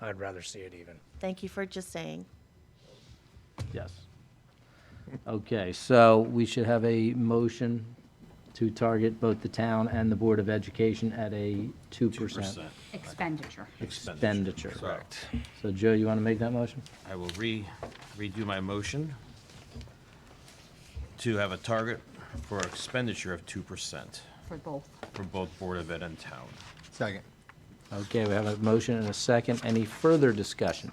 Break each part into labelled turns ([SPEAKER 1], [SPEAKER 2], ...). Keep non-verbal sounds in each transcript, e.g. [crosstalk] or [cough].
[SPEAKER 1] I'd rather see it even.
[SPEAKER 2] Thank you for just saying.
[SPEAKER 3] Yes. Okay, so we should have a motion to target both the town and the Board of Education at a 2%
[SPEAKER 4] Expenditure.
[SPEAKER 3] expenditure.
[SPEAKER 5] Correct.
[SPEAKER 3] So Joe, you want to make that motion?
[SPEAKER 5] I will re, redo my motion to have a target for expenditure of 2%
[SPEAKER 4] For both.
[SPEAKER 5] for both Board of Ed and town.
[SPEAKER 6] Second.
[SPEAKER 3] Okay, we have a motion and a second. Any further discussion?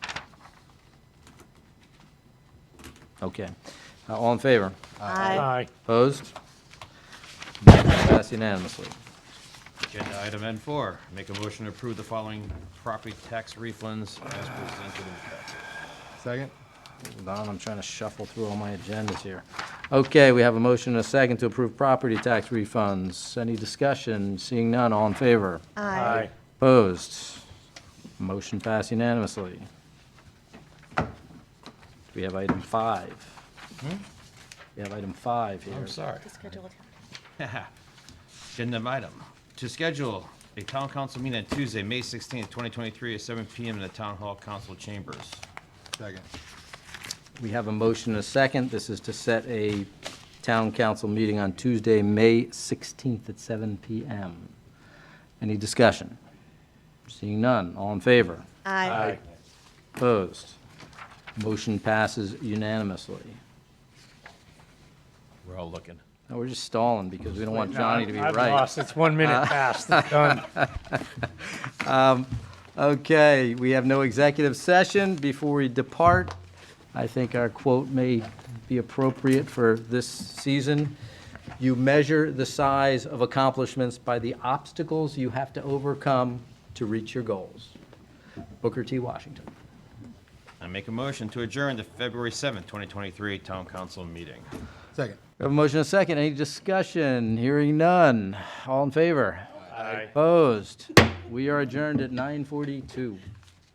[SPEAKER 3] Okay. Uh, All in favor?
[SPEAKER 2] Aye.
[SPEAKER 3] Opposed? Motion Passed unanimously.
[SPEAKER 5] Agenda item N4, make a motion to approve the following property tax refunds as presented in packet.
[SPEAKER 6] Second.
[SPEAKER 3] Hold on, I'm trying to shuffle through all my agendas here. Okay, we have a motion and a second to approve property tax refunds. Any discussion? Seeing none, all in favor?
[SPEAKER 2] Aye.
[SPEAKER 3] Opposed? Motion passed unanimously. We have item five.
[SPEAKER 1] Hmm?
[SPEAKER 3] We have item five here.
[SPEAKER 5] I'm sorry. [laughs]
[SPEAKER 2] To schedule a town-
[SPEAKER 5] Agenda item, to schedule a town council meeting on Tuesday, May 16th, 2023, at 7 PM in the Town Hall Council Chambers.
[SPEAKER 6] Second.
[SPEAKER 3] We have a motion and a second. This is to set a town council meeting on Tuesday, May 16th at 7 PM. Any discussion? Seeing none, all in favor?
[SPEAKER 2] Aye.
[SPEAKER 3] Opposed? Motion passes unanimously.
[SPEAKER 5] We're all looking.
[SPEAKER 3] Now, we're just stalling because we don't want
[SPEAKER 1] No,
[SPEAKER 3] Johnny to be
[SPEAKER 1] I've
[SPEAKER 3] right. Uh,
[SPEAKER 1] lost. It's one minute
[SPEAKER 3] [laughs]
[SPEAKER 1] past. It's done.
[SPEAKER 3] Okay, we have no executive session. Before we depart, I think our quote may be appropriate for this season. You measure the size of accomplishments by the obstacles you have to overcome to reach your goals. Booker T. Washington.
[SPEAKER 5] I make a motion to adjourn the February 7th, 2023 Town Council meeting.
[SPEAKER 6] Second.
[SPEAKER 3] We have a motion and a second. Any discussion? Hearing none. All in favor?
[SPEAKER 1] Aye.
[SPEAKER 3] Opposed? We are adjourned at 9:42.